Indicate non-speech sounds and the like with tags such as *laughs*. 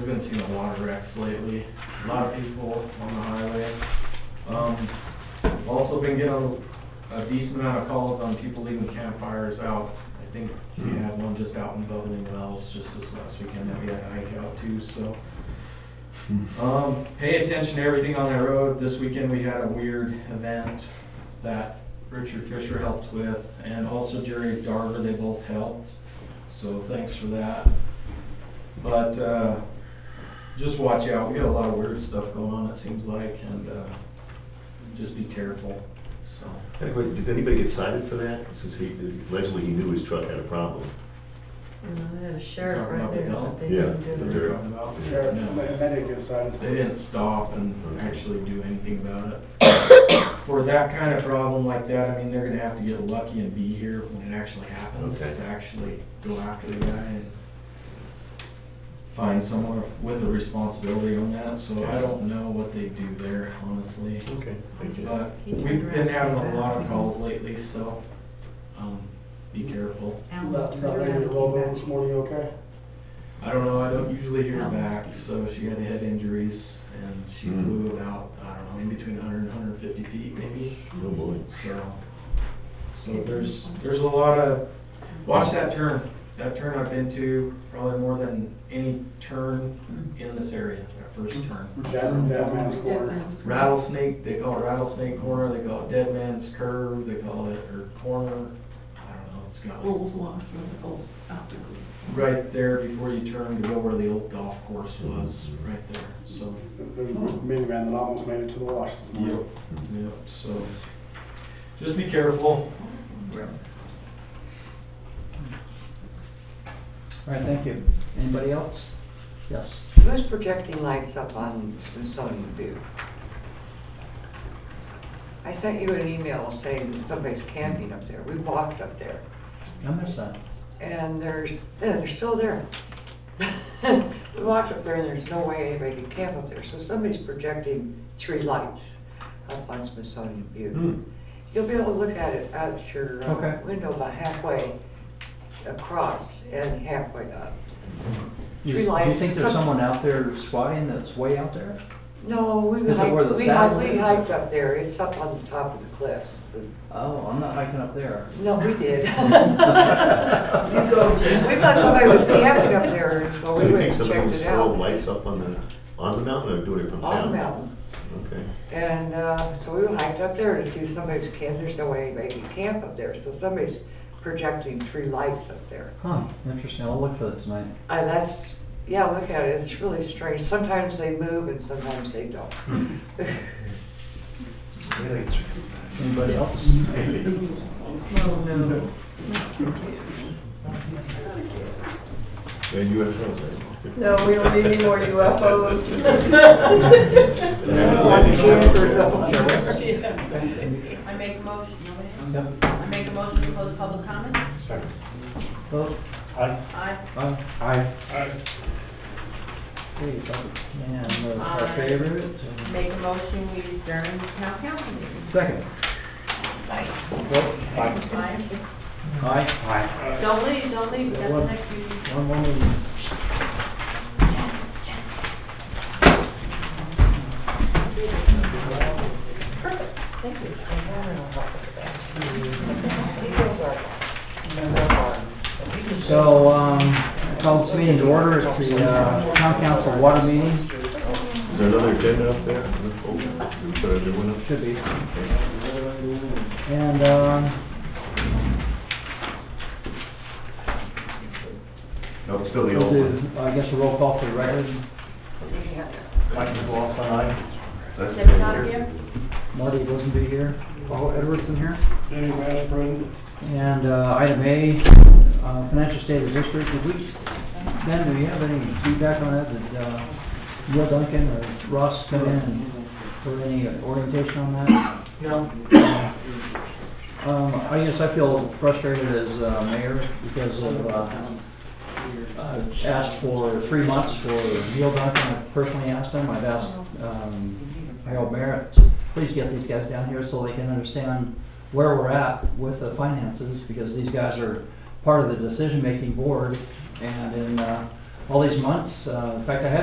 I've been seeing a lot of wrecks lately, a lot of people on the highway. Um, also been getting a decent amount of calls on people leaving campfires out. I think we had one just out in Bubbling Wells just this last weekend that we had a hike out to, so. Um, pay attention to everything on that road. This weekend we had a weird event that Richard Fisher helped with and also Jerry Darver, they both helped. So thanks for that. But, uh, just watch out. We got a lot of weird stuff going on, it seems like, and, uh, just be careful, so. Anybody- Did anybody get cited for that? Since he, allegedly he knew his truck had a problem. Uh, Sheriff right there. I think Yeah. he did it. Sure. Talking about- Sheriff, No. somebody medic inside. They didn't stop and actually do anything about it. For that kind of problem like that, I mean, they're gonna have to get lucky and be here when it actually happens, Okay. to actually go after the guy and find someone with a responsibility on that, so I don't know what they do there, honestly. Okay. Thank you. But we've been having a lot of calls lately, so, um, be careful. Left, left lady rolled over this morning, okay? I don't know, I don't usually hear back, so she had head injuries and she Hmm. flew about, I don't know, in between hundred and hundred and fifty feet maybe, Oh, boy. so. So there's, there's a lot of, watch that turn, that turn I've been to probably more than any turn in this area, that first turn. That, that man's corner. Rattlesnake, they call it rattlesnake corner, they call it dead man's curve, they call it, or corner, I don't know, it's got like, Old launch from the old optical. right there before you turn to go where the old golf course was, right there, so. There was a minivan that almost made it to the wash this Yep, morning. yep, so, just be careful. All right, thank you. Anybody else? Yes. Who's projecting lights up on Smithsonian View? I sent you an email saying that somebody's camping up there. We walked up there I missed that. and there's, yeah, they're still there. *laughs* We walked up there and there's no way anybody could camp up there. So somebody's projecting three lights up on Smithsonian View. Hmm. You'll be able to look at it out your uh, Okay. window about halfway across and halfway up. Three lights. Do you think there's someone out there squatting that's way out there? No, we Is it where hiked, the we saddle hiked, we is? hiked up there, it's up on the top of the cliffs. Oh, I'm not hiking up there. No, we *laughs* did. We thought somebody was camping up there, so Do Oh, we you went think and somebody checked was it throwing out. lights up on the, on the mountain or doing it from down? On the mountain, Okay. and, uh, so we hiked up there to see if somebody's camp, there's no way anybody could camp up there, so somebody's projecting three lights up there. Huh, interesting. I'll look for that tonight. And that's, yeah, look at it, it's really strange, sometimes they move and sometimes they don't. *laughs* Anybody else? Well, no. And UFOs, right? No, we don't need any more *laughs* UFOs. I make a motion, nobody? I make a motion to close public comments? Vote. Aye. Aye. Hey, vote. And those are Aye. favorites. and- Make a motion, we adjourn the town council meeting. Second. Aye. Vote. Aye. Aye. Don't leave, don't leave, we got the next meeting. Aye. One more meeting. So, um, call this meeting to order, it's the, uh, town council water meeting, Is there another agenda up there? Oh, Should I do one up? should be, Okay. and, um, No, still the we'll old do, one. I guess, a roll call for the record. Mike McLaughlin, aye. That's Is it not still here? Marty Rosenby here, Paul Edwardson here. Jenny Van Bryn. And, uh, item A, uh, financial state of district, did we, Ben, do you have any feedback on that? Did, uh, Will Duncan or Ross come in and, for any orientation on that? No. Um, I guess I feel frustrated as, uh, mayor because of, uh, I've asked for three months for Neil Duncan, I personally asked him, I've asked, um, Harold Merritt, please get these guys down here so they can understand where we're at with the finances, because these guys are part of the decision-making board, and in, uh, all these months, uh, in fact, I had